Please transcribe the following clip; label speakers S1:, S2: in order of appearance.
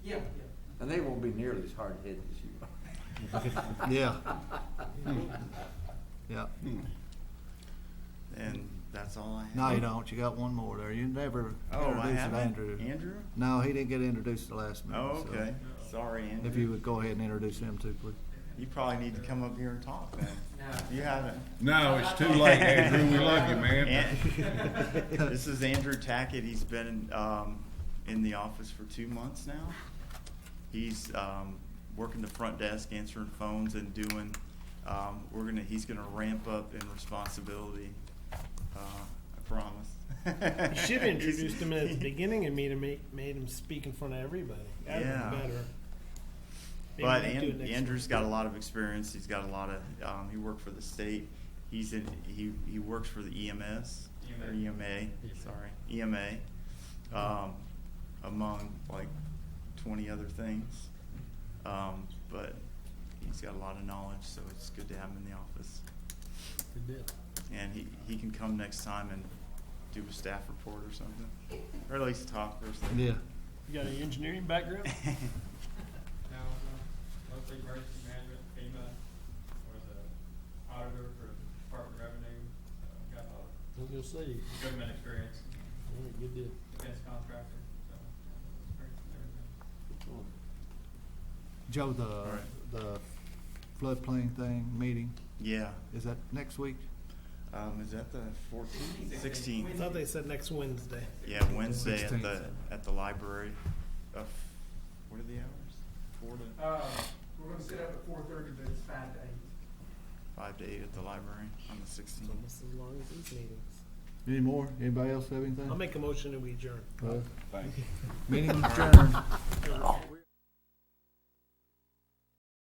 S1: And they won't be nearly as hard-headed as you are.
S2: Yeah. Yeah.
S3: And that's all I have.
S2: No, you don't. You got one more there. You never
S3: Oh, I
S2: introduced
S3: haven't?
S2: Andrew.
S3: Andrew?
S2: No, he didn't get introduced the last minute.
S3: Oh,
S2: so
S3: okay. Sorry, Andrew.
S2: If you would go ahead and introduce him too, please.
S3: You probably need to come up here and talk then. You haven't.
S4: No, it's too late, Andrew. We love you, man.
S3: An- This is Andrew Tackett. He's been um, in the office for two months now. He's um, working the front desk, answering phones and doing, um, we're gonna, he's gonna ramp up in responsibility. Uh, I promise.
S5: You should have introduced him at the beginning and made him made him speak in front of everybody. That would
S3: Yeah.
S5: have been better. Maybe
S3: But
S5: we can do
S3: An-
S5: it next
S3: Andrew's
S5: time.
S3: got a lot of experience. He's got a lot of. Um, he worked for the state. He's in. He he works for the EMS or EMA. Sorry, EMA. Um, among like twenty other things, um, but he's got a lot of knowledge, so it's good to have him in the office.
S5: Good deal.
S3: And he, he can come next time and do a staff report or something, or at least talk or something.
S2: Yeah.
S5: You got an engineering background?
S6: Now, mostly emergency management, FEMA, was a auditor for Department of Revenue, so got a lot of
S5: I was gonna say, all
S6: government experience,
S5: right, good deal.
S6: defense contractor, so, yeah, experience in everything.
S2: Joe, the
S3: All right.
S2: the floodplain thing meeting
S3: yeah.
S2: is that next week?
S3: Um, is that the 14th? 16th.
S5: I thought they said next Wednesday.
S3: Yeah, Wednesday at the,
S2: 16th.
S3: at the library. Uh, What are the hours? Four to,
S6: Uh, we're gonna set up at four thirty, but it's five to eight.
S3: five to eight at the library on the
S5: It's
S3: sixteenth.
S5: almost as long as these meetings.
S2: Any more? Anybody else have anything?
S5: I'll make a motion that we adjourn.
S2: Well, Meeting adjourned.
S5: Adjourn.